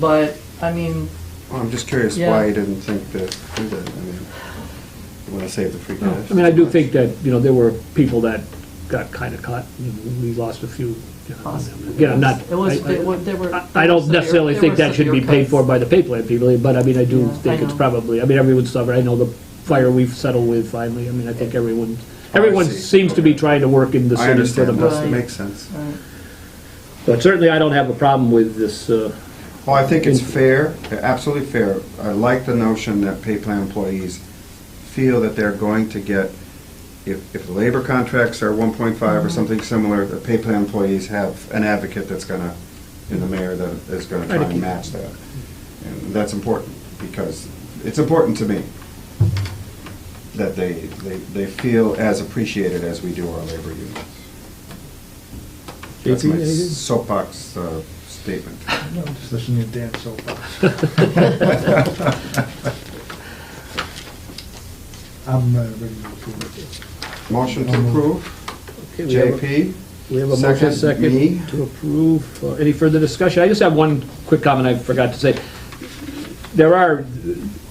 But, I mean, Well, I'm just curious Yeah. why you didn't think to do that. I mean, you want to save the free cash. I mean, I do think that, you know, there were people that got kind of caught, and we lost a few. you know, Possibly. Again, I'm not. It was- I- I- it was- there were- I- I don't there were necessarily severe- think there that were should be severe paid cuts. for by the pay plan people, but I mean, I do Yeah, think I it's know. probably, I mean, everyone's stubborn, I know the fire we've settled with finally, I mean, I think everyone, Oh, I everyone see. seems to be Okay. trying to work in the I city for the understand, best. that Right. makes sense. uh, But certainly, I don't have a problem with this, uh, Well, I think it's fair, absolutely fair. I like the notion that pay plan employees feel that they're going to get, if, if the labor contracts are 1.5 Mm-hmm. or something similar, the pay plan employees have an advocate that's going to, in the mayor, that is going to Try try to and keep- match that. And that's important, because it's important to me that they, they, they feel as appreciated as we do our labor unions. That's JP, my anything? soapbox uh, statement. No, just listening to Dan soapbox. I'm uh, ready to approve it. Motion to approve? okay, Um, we have a- JP? We have a motion Second, me. second to approve. Uh, Any further discussion? I just have one quick comment I forgot to say. There are,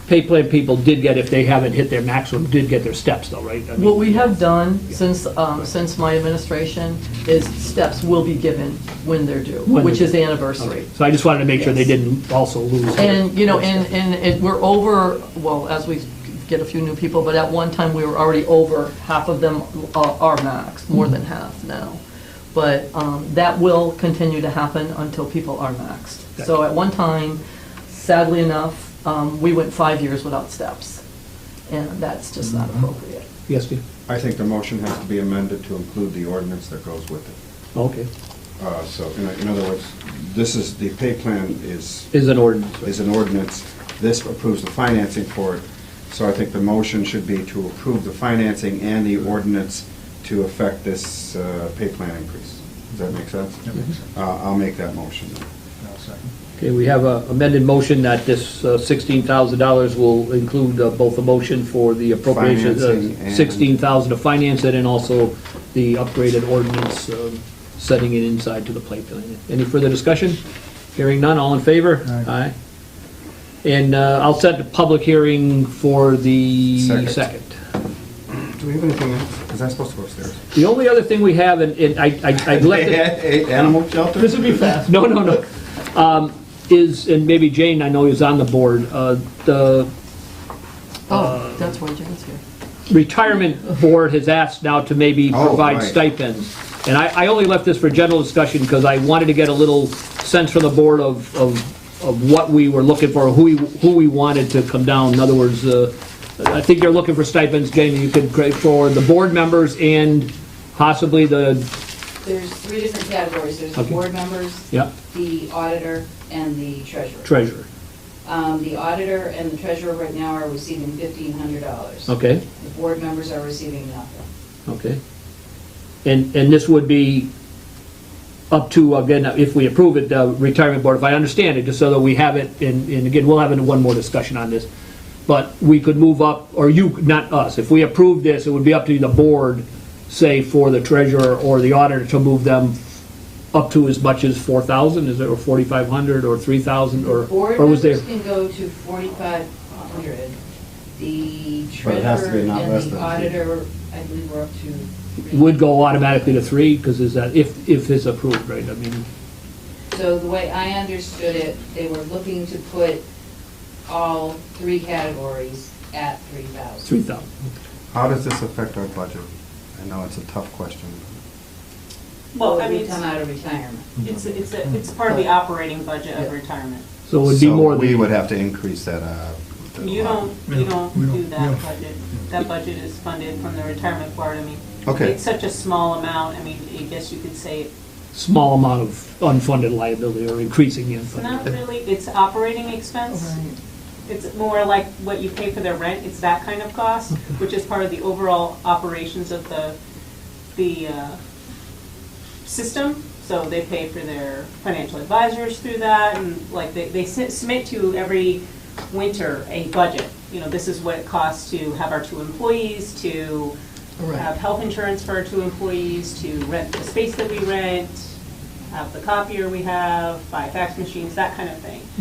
pay plan people did get, if they haven't hit their maximum, did get their steps though, right? I mean, What we have done since, um, since my administration is steps will be given when they're due, When which they're is anniversary. So I just wanted to make sure they Yes. didn't also lose. their- And, you know, and, and it- we're over, well, as we get a few new people, but at one time, we were already over, half of them are are max, more than half now. But um, that will continue to happen until people are maxed. So at one time, sadly enough, um, we went five years without steps, and that's just not appropriate. Yes, Steve? I think the motion has to be amended to include the ordinance that goes with it. Okay. Uh, So, in in other words, this is, the pay plan is, Is an ordinance. right? is an ordinance. This approves the financing for it. So I think the motion should be to approve the financing and the ordinance to affect this uh, pay plan increase. Does that make sense? That makes sense. Uh, I'll make that motion. I'll second. Okay, we have a amended motion that this uh, $16,000 will include uh, both a motion for the appropriation, Financing uh, and- 16,000 to finance it, and also the upgraded ordinance um, setting it inside to the play plan. Any further discussion? Hearing none, all in favor? Aye. And uh, I'll set the public hearing for the Second. second. Do we have anything else? Because I'm supposed to go upstairs. The only other thing we have, and and I I I left it... A- a- Animal shelter? This would be fast. No, no, no. Um, Is, and maybe Jane, I know is on the board, uh, the Oh, that's why Jen's here. retirement board has asked now to maybe Oh, provide right. stipends. And I, I only left this for general discussion because I wanted to get a little sense from the board of, of, of what we were looking for, who we, who we wanted to come down. In other words, uh, I think you're looking for stipends, Jane, you could, create for the board members and possibly the, There's three different categories. There's the Okay. board members, yeah, the auditor, and the treasurer. treasurer. Um, The auditor and the treasurer right now are receiving $1,500. Okay, The board members are receiving nothing. okay. And, and this would be up to, again, if we approve it, the retirement board, if I understand it, just so that we have it, and, and again, we'll have it in one more discussion on this, but we could move up, or you, not us, if we approve this, it would be up to the board, say, for the treasurer or the auditor to move them up to as much as four thousand, is it, or forty-five hundred, or three thousand, or, Board or was there? members can go to 4,500. The But it has to treasurer be and not less the than auditor, I believe, we're up to. three. Would go automatically to three, because is that, if, if it's approved, right, I mean, So the way I understood it, they were looking to put all three categories at 3,000. three thousand. How does this affect our budget? I know it's a tough question. Well, I Mm-hmm. Or we mean, Come out of retirement. it's, it's, a- it's part of the operating budget of retirement. So it would be So more than. we would have to increase that, uh. the You line. don't, you Yeah, don't we don't- do yeah. that budget. That budget is funded from the retirement board, I mean. Okay. It's such a small amount, I mean, I guess you could say, small amount of unfunded liability or increasing the it's not unfunded. really, it's operating expense. It's more like what you pay for their rent, it's that kind of cost, which is part of the overall operations of the, the uh, system. So they pay for their financial advisors through that, and like, they, they sit- submit to you every winter a budget. You know, this is what it costs to have our two employees, to have health insurance for our two employees, to rent the space that we rent, have the copier we have, buy fax machines, that kind of thing.